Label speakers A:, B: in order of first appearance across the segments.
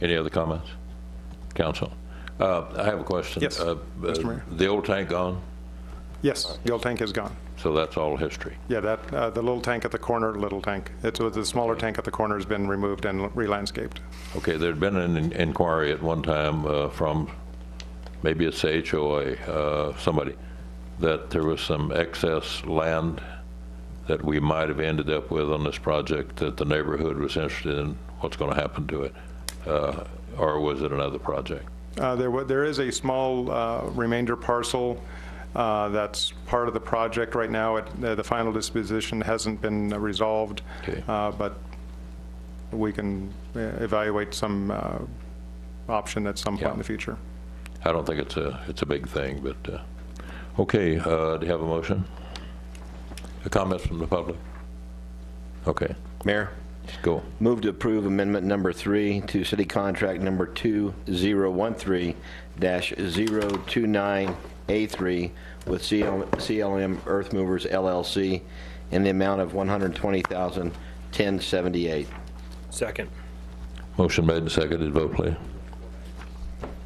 A: Any other comments? Council? Uh, I have a question.
B: Yes,
A: Uh, uh,
B: Mr. Mayor.
A: The old tank gone,
B: Yes, the old tank is gone.
A: so that's all history.
B: Yeah, that, uh, the little tank at the corner, little tank, it's, the smaller tank at the corner has been removed and re-landscaped.
A: Okay, there'd been an in- inquiry at one time uh, from, maybe it's HOA, uh, somebody, that there was some excess land that we might have ended up with on this project that the neighborhood was interested in, what's going to happen to it? Uh, Or was it another project?
B: Uh, There, wa- there is a small uh, remainder parcel uh, that's part of the project right now. It- uh, The the final disposition hasn't been uh, resolved,
A: Okay.
B: uh, but we can uh, evaluate some uh, option at some point in the future.
A: I don't think it's a, it's a big thing, but, uh, okay, uh, do you have a motion? A Comments from the public? Okay,
C: Mayor,
A: go.
C: move to approve amendment number three to city contract number 2013-029A3 with CL CLM Earth Movers LLC in the amount of $120,1078.
D: Second.
A: Motion made and seconded, vote please.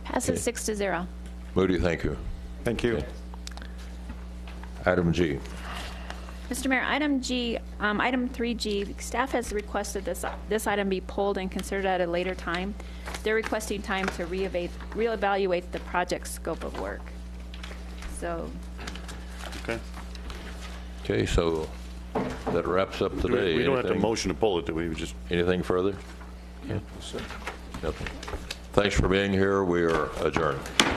E: Passes six to zero.
A: Moody, thank you.
B: Thank you.
A: Item G.
E: Mr. Mayor, item G, um, item 3G, staff has requested this, this item be pulled and considered at a later time. They're requesting time to reevaluate, reevaluate the project scope of work. So,
A: Okay, so that wraps up
F: Do
A: today.
F: We we don't have to
A: Anything-
F: motion to pull it, do we? We just,
A: Anything further? Nothing. Thanks for being here, we are adjourned.